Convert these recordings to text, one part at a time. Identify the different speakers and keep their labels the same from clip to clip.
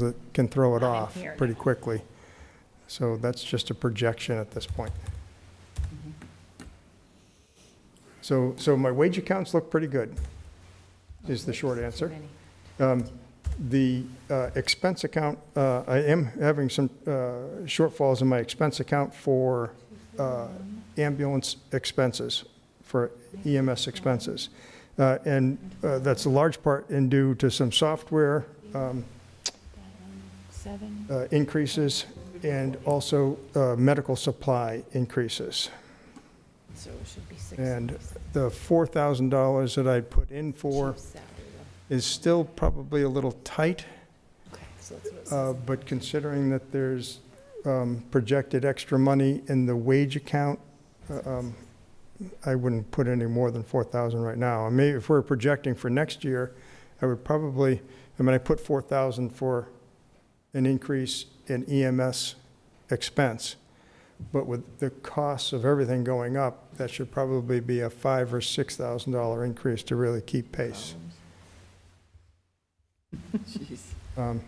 Speaker 1: that can throw it
Speaker 2: Not in
Speaker 1: off
Speaker 2: here,
Speaker 1: pretty quickly. So that's just a projection at this point. Mm-hmm. So, so my wage accounts look pretty good, is the short answer. Um, The uh, expense account, uh, I am having some uh, shortfalls in my expense account for uh, ambulance expenses, for EMS expenses. Uh, And uh, that's a large part in due to some software um,
Speaker 2: Seven.
Speaker 1: uh, increases and also uh, medical supply increases.
Speaker 2: So it should be six.
Speaker 1: And The $4,000 that I put in for is still probably a little tight,
Speaker 2: Okay, so that's what it
Speaker 1: uh,
Speaker 2: says.
Speaker 1: but considering that there's um, projected extra money in the wage account, uh, um, I wouldn't put any more than 4,000 right now. I mean, if we're projecting for next year, I would probably, I mean, I put 4,000 for an increase in EMS expense. But with the costs of everything going up, that should probably be a five or $6,000 increase to really keep pace. Um,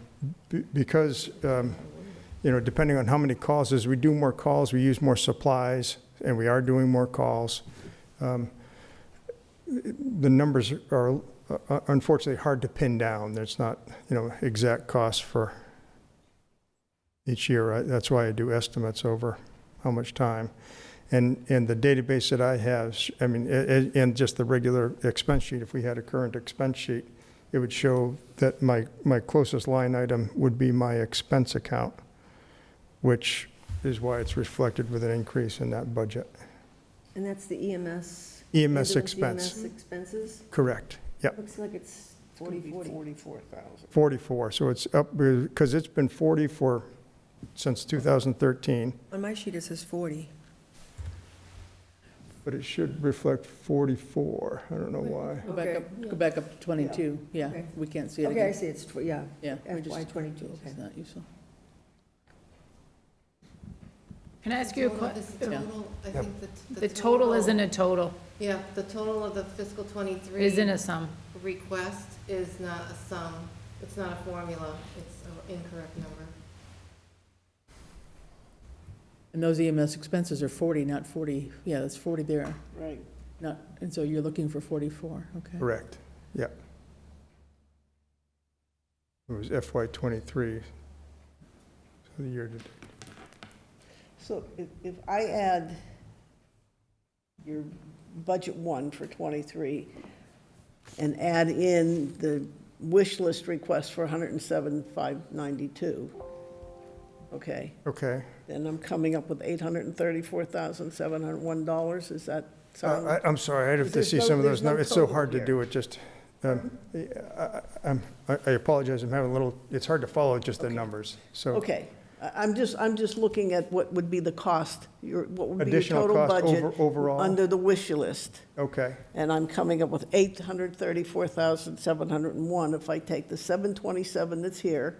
Speaker 1: be- Because, um, you know, depending on how many calls, as we do more calls, we use more supplies, and we are doing more calls. Um, The numbers are uh, unfortunately hard to pin down. There's not, you know, exact costs for each year. I- That's why I do estimates over how much time. And, and the database that I have, sh- I mean, a- a- and just the regular expense sheet, if we had a current expense sheet, it would show that my, my closest line item would be my expense account, which is why it's reflected with an increase in that budget.
Speaker 3: And that's the E EMS?
Speaker 1: EMS
Speaker 3: ambulance
Speaker 1: E
Speaker 4: E
Speaker 1: expense,
Speaker 3: EMS E expenses?
Speaker 1: correct, yep,
Speaker 3: Looks like it's 40, 40.
Speaker 5: Forty-four thousand.
Speaker 1: 44, so it's up, because it's been 40 for, since 2013,
Speaker 6: On my sheet, it says 40.
Speaker 1: but it should reflect 44, I don't know why.
Speaker 5: Go back
Speaker 3: Okay.
Speaker 5: up, go back up to twenty-two, yeah,
Speaker 3: Okay.
Speaker 5: we can't see it
Speaker 3: Okay, I
Speaker 5: again.
Speaker 3: see, it's, tw- yeah,
Speaker 5: Yeah, we just,
Speaker 3: FY '22, okay.
Speaker 5: it's not useful.
Speaker 2: Can I ask you a
Speaker 7: Total-
Speaker 2: question?
Speaker 7: this is total, I
Speaker 1: Yep.
Speaker 7: think the-
Speaker 2: The total isn't a total,
Speaker 7: Yeah, the total of the fiscal
Speaker 2: it isn't
Speaker 7: twenty-three
Speaker 2: a sum.
Speaker 7: request is not a sum. It's not a formula. It's an incorrect number.
Speaker 5: And those EMS expenses are forty, not forty, yeah, that's forty there. Right. Not, and so you're looking for forty-four, okay.
Speaker 1: Correct, yeah. It was FY '23, so the year to
Speaker 4: So if, if I add your budget one for '23 and add in the wish list request for 107,592, okay,
Speaker 1: Okay.
Speaker 4: then I'm coming up with $834,701. Is that
Speaker 1: Uh,
Speaker 4: sound?
Speaker 1: I- I'm sorry, I'd have to
Speaker 4: There's
Speaker 1: see
Speaker 4: no-
Speaker 1: some of
Speaker 4: there's
Speaker 1: those
Speaker 4: no
Speaker 1: numbers. It's so
Speaker 4: total
Speaker 1: hard to
Speaker 4: here. Uh-huh.
Speaker 1: do it, just, um, I I- I'm- I- I apologize, I'm having a little, it's hard to follow just the numbers. So
Speaker 4: Okay, I- I'm just, I'm just looking at what would be the cost, your, what would be your
Speaker 1: additional
Speaker 4: total
Speaker 1: cost over-
Speaker 4: budget
Speaker 1: overall?
Speaker 4: under the wish list.
Speaker 1: Okay,
Speaker 4: And I'm coming up with 834,701 if I take the 727 that's here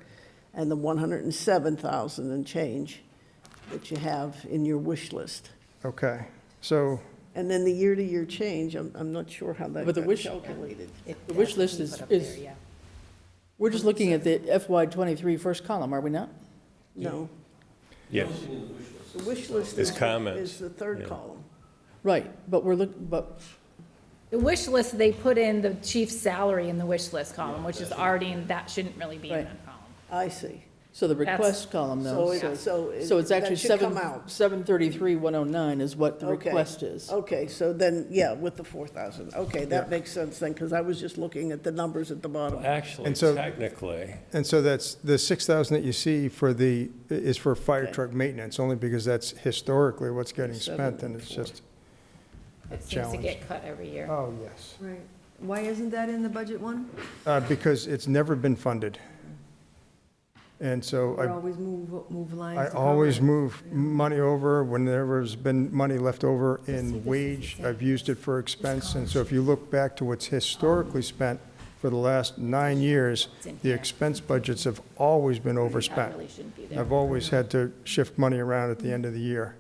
Speaker 4: and the 107,000 and change that you have in your wish list.
Speaker 1: okay. So,
Speaker 4: And then the year-to-year change, I'm, I'm not sure how that
Speaker 5: But the
Speaker 4: got
Speaker 5: wish-
Speaker 4: calculated.
Speaker 5: The wish list is, is, we're just looking at the FY twenty-three first column, are we not?
Speaker 4: No,
Speaker 8: Yes,
Speaker 4: the wish list
Speaker 8: It's
Speaker 4: is, the-
Speaker 8: comments,
Speaker 4: is the third
Speaker 8: yeah.
Speaker 4: column.
Speaker 5: Right, but we're look, but,
Speaker 2: The wish list, they put in the chief's salary in the wish list column, which is already, in that shouldn't really be in
Speaker 5: Right.
Speaker 2: that column.
Speaker 4: I see.
Speaker 5: so the
Speaker 2: That's-
Speaker 5: request column
Speaker 4: So
Speaker 5: though,
Speaker 4: it,
Speaker 5: so,
Speaker 4: so it-
Speaker 5: so it's
Speaker 4: that
Speaker 5: actually
Speaker 4: should
Speaker 5: seven,
Speaker 4: come out.
Speaker 5: seven thirty-three, one oh nine is what the
Speaker 4: Okay.
Speaker 5: request is.
Speaker 4: Okay, so then, yeah, with the 4,000. Okay, that makes sense then, because I was just looking at the numbers at the bottom.
Speaker 8: actually,
Speaker 1: And so-
Speaker 8: technically,
Speaker 1: and so that's, the 6,000 that you see for the, is for fire
Speaker 4: Okay.
Speaker 1: truck maintenance, only because that's historically what's getting
Speaker 4: Seven
Speaker 1: spent, and it's
Speaker 4: four.
Speaker 1: just,
Speaker 2: It seems to
Speaker 1: Challenge.
Speaker 2: get cut every year.
Speaker 1: oh, yes.
Speaker 3: Right. Why isn't that in the budget one?
Speaker 1: Uh, Because it's never been funded. And so I
Speaker 3: Or always move, move lines?
Speaker 1: I
Speaker 3: to cover
Speaker 1: always
Speaker 3: it?
Speaker 1: move money over whenever's been money left over in wage. I've used it for expense, and so if you look back to what's historically spent for the last nine years,
Speaker 2: It's in
Speaker 1: the
Speaker 2: here.
Speaker 1: expense budgets have always been
Speaker 2: That
Speaker 1: overspent.
Speaker 2: really shouldn't be there.
Speaker 1: I've
Speaker 4: Mm-hmm.
Speaker 1: always had to shift money around at the end of the year.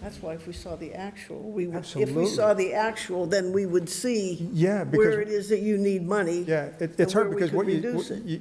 Speaker 4: That's why if we saw the actual, we would, if we
Speaker 1: Absolutely.
Speaker 4: saw the actual, then we would see
Speaker 1: Yeah,
Speaker 4: where it
Speaker 1: because,
Speaker 4: is that you need money.
Speaker 1: yeah, it-
Speaker 4: and
Speaker 1: it's hard
Speaker 4: where we
Speaker 1: because
Speaker 4: could
Speaker 1: what you-
Speaker 4: reduce
Speaker 1: what
Speaker 4: it.
Speaker 1: you,